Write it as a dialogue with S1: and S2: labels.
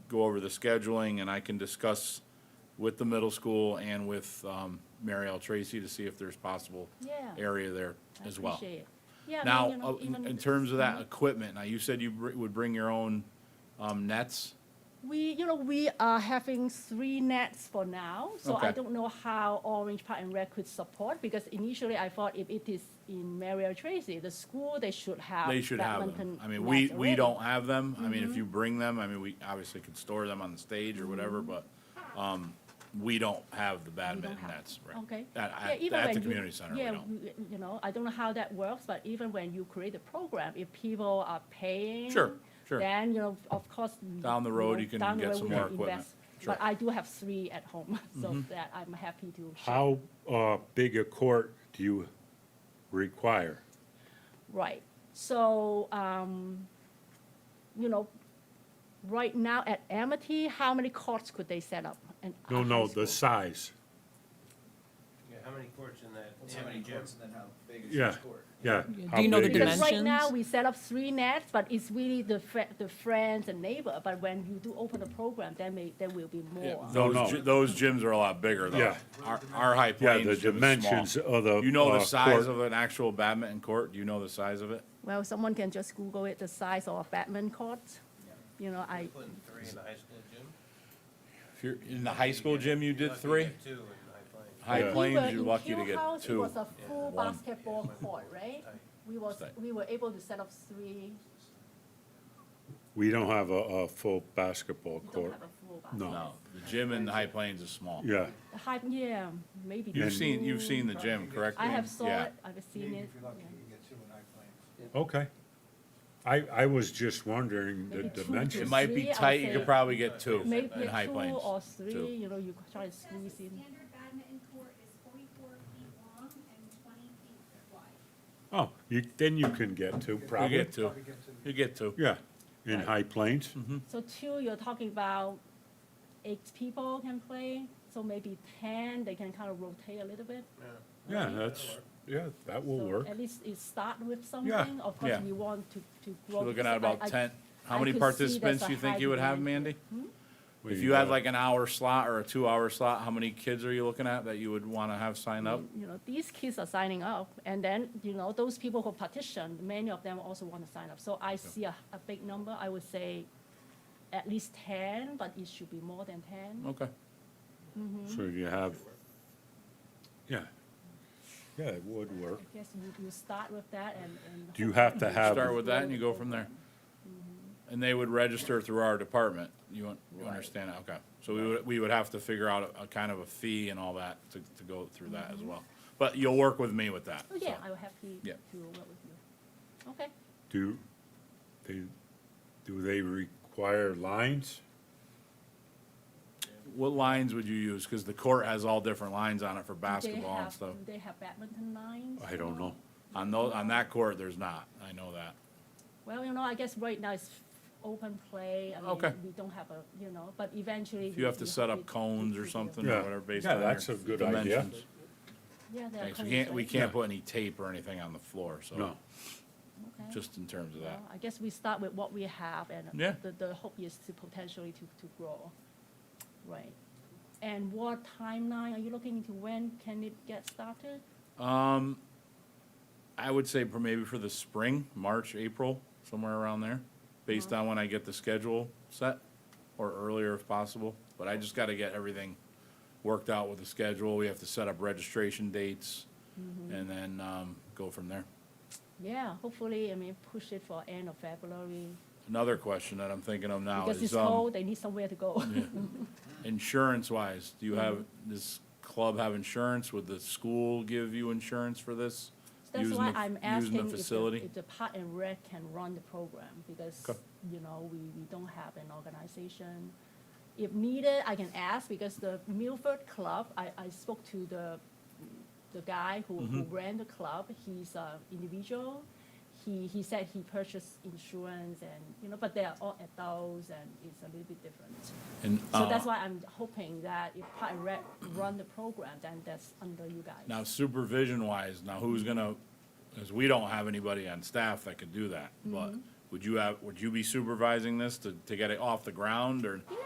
S1: go over the scheduling, and I can discuss with the middle school and with um, Mary L. Tracy to see if there's possible
S2: Yeah.
S1: area there
S2: I
S1: as well.
S2: appreciate it. Yeah, I mean, you
S1: Now,
S2: know, Mhm.
S1: uh,
S2: even.
S1: in in terms of that equipment, now you said you br- would bring your own um, nets?
S2: We, you know, we are having three nets for now, so I
S1: Okay.
S2: don't know how Orange Park and Red could support, because initially I thought if it is in Mary or Tracy, the school, they should have
S1: They should have them.
S2: badminton
S1: I mean, we,
S2: nets Mm-hmm.
S1: we
S2: already.
S1: don't have them. I mean, if you bring them, I mean, we obviously could store them on the stage or whatever, but um, we don't have the badminton
S2: Mm-hmm. have-
S1: nets, right?
S2: Okay.
S1: At,
S2: Yeah,
S1: at-
S2: even
S1: at
S2: when
S1: the
S2: you-
S1: community center, we
S2: yeah,
S1: don't.
S2: w- You know, I don't know how that works, but even when you create a program, if people are paying.
S1: Sure, sure.
S2: Then, you know, of course.
S1: Down the road,
S2: know,
S1: you can
S2: down the
S1: get
S2: road
S1: some
S2: we can
S1: more equipment.
S2: invest.
S1: Sure. Mm-hmm.
S2: But I do have three at home, so that I'm happy to. share.
S3: How uh, big a court do you require?
S2: Right. So, um, you know, right now at Amity, how many courts could they set up? in
S3: No,
S2: a
S3: no,
S2: high
S3: the
S2: school?
S3: size.
S4: Yeah, how many courts in that,
S5: Well,
S4: how many gyms?
S5: courts and then how big is
S3: Yeah,
S5: each court?
S3: yeah.
S6: Do
S3: How
S6: you know the
S3: big is-
S2: Because right now,
S6: dimensions?
S2: we set up three nets, but it's really the fri- the friends and neighbor, but when you do open the program, there may, there will be more.
S3: No,
S1: Those,
S3: no.
S1: gy- those gyms are a lot bigger though.
S3: Yeah.
S1: Our, our high
S3: Yeah,
S1: plains
S3: the
S1: gym is small.
S3: dimensions of the.
S1: You know the
S3: uh,
S1: size
S3: court.
S1: of an actual badminton court? Do you know the size of it?
S2: Well, someone can just Google it, the size of a badminton court, you know, I,
S4: Putting three in the high school gym?
S1: If you're, in the high school
S4: You get-
S1: gym, you
S4: you're
S1: did
S4: lucky to
S1: three?
S4: get Two in High Plains.
S1: High
S3: Yeah.
S2: We were
S1: plains,
S2: in
S1: you're lucky to
S2: Kew
S1: get
S2: House, It
S1: two.
S2: was a full
S1: one.
S2: basketball court, right? We was,
S1: Stay.
S2: we were able to set up three,
S3: We don't have a, a full basketball
S2: we don't
S3: court.
S2: have a full basketball.
S3: No.
S1: No, the gym in the high plains is small.
S3: Yeah,
S2: The Hype, yeah, maybe.
S1: You've
S2: two.
S1: seen, you've seen the gym, correct?
S2: I have
S1: Wayne?
S2: saw
S1: Yeah.
S2: it, I've seen it,
S5: If you're lucky,
S2: yeah.
S5: you can get two in high plains.
S3: okay. I, I was just wondering
S2: Maybe
S3: the
S2: two to
S1: It
S3: dimensions.
S1: might be
S2: Three, I would
S1: tight, you
S2: say.
S1: could probably get two
S2: maybe
S1: in high
S2: two
S1: plains.
S2: or
S1: Two.
S2: three, you know, you could try to
S7: It says
S2: squeeze
S7: the
S2: in.
S7: standard badminton court is forty-four feet long and twenty feet wide.
S3: Oh, you, then you can get two,
S1: You
S3: probably.
S1: get Mm-hmm. two,
S5: Probably get two.
S1: you get two.
S3: Yeah, in High Plains.
S2: So two, you're talking about eight people can play, so maybe ten, they can kind of rotate a little bit.
S3: Yeah, that's, yeah, that will
S2: So
S3: work.
S2: At least it start with something, of course,
S1: yeah.
S2: we want to, to grow.
S1: You're Looking
S2: this.
S1: at
S2: I- I-
S1: about ten, how
S2: I
S1: many
S2: could see there's
S1: participants
S2: a
S1: you think
S2: high
S1: you would have,
S2: demand.
S1: Mandy?
S3: We,
S1: If you had
S3: uh,
S1: like an hour slot or a two-hour slot, how many kids are you looking at that you would wanna have sign up?
S2: You know, these kids are signing up, and then, you know, those people who petition, many of them also want to sign up. So I see a, a big number, I would say at least ten, but it should be more than ten.
S1: Okay.
S3: So you
S2: Mm-hmm.
S3: have, yeah, yeah, it would work.
S2: I guess you, you start with that and, and.
S3: Do you have to have?
S1: Start with that and you go from there. And they would register through our department. You un- you understand that? Okay. So we would, we would have to figure out a, a kind of a fee and all that to, to go through that as well. But you'll work with me with that.
S2: Mm-hmm. Oh, yeah,
S1: so.
S2: I will happy
S1: Yeah.
S2: to work with you. Okay,
S3: Do they, do they require lines?
S1: What lines would you use? Cause the court has all different lines on it for
S2: do they
S1: basketball and
S2: have,
S1: stuff.
S2: do they have badminton lines?
S3: I don't know.
S1: On those, on that court, there's not. I know that.
S2: Well, you know, I guess right now it's open play, I
S1: Okay.
S2: mean, we don't have a, you know, but eventually.
S1: If you have to set
S2: we-
S1: up cones or something or
S3: Yeah.
S1: whatever based
S3: Yeah,
S1: on your
S3: that's a good idea.
S1: dimensions.
S2: Yeah, there are
S1: Thanks. We
S2: cones,
S1: can't, we
S2: right?
S1: can't
S3: Yeah.
S1: put any tape or anything on the floor, so.
S3: No.
S2: Okay.
S1: Just in terms of that.
S2: Well, I guess we start with what we have and
S1: Yeah.
S2: the, the hope is to potentially to, to grow. Right. And what timeline are you looking into? When can it get started?
S1: Um, I would say for maybe for the spring, March, April, somewhere around there, based
S2: Uh-huh.
S1: on when I get the schedule set, or earlier if possible. But I just gotta get everything worked out with the schedule. We have to set up registration dates,
S2: Mm-hmm.
S1: and then, um, go from there.
S2: Yeah, hopefully, I mean, push it for end of February.
S1: Another question that I'm thinking of now
S2: Because it's
S1: is, um,
S2: cold, they need somewhere to go.
S1: insurance-wise, do you have, does club have insurance? Would the school give you insurance for this?
S2: That's
S1: using
S2: why
S1: the-
S2: I'm
S1: using the
S2: asking if the,
S1: facility?
S2: if the Park and Rec can run the program, because,
S1: Okay.
S2: you know, we, we don't have an organization. If needed, I can ask, because the Milford Club, I, I spoke to the, the guy who, who
S1: Mm-hmm.
S2: ran the club, he's a individual. He, he said he purchased insurance and, you know, but they are all adults and it's a little bit different.
S1: And,
S2: So that's
S1: uh,
S2: why I'm hoping that if Park and Rec run the program, then that's under you guys.
S1: Now, supervision wise, now who's gonna, because we don't have anybody on staff that could do that, but would you have, would you be supervising this to, to get it off the ground or?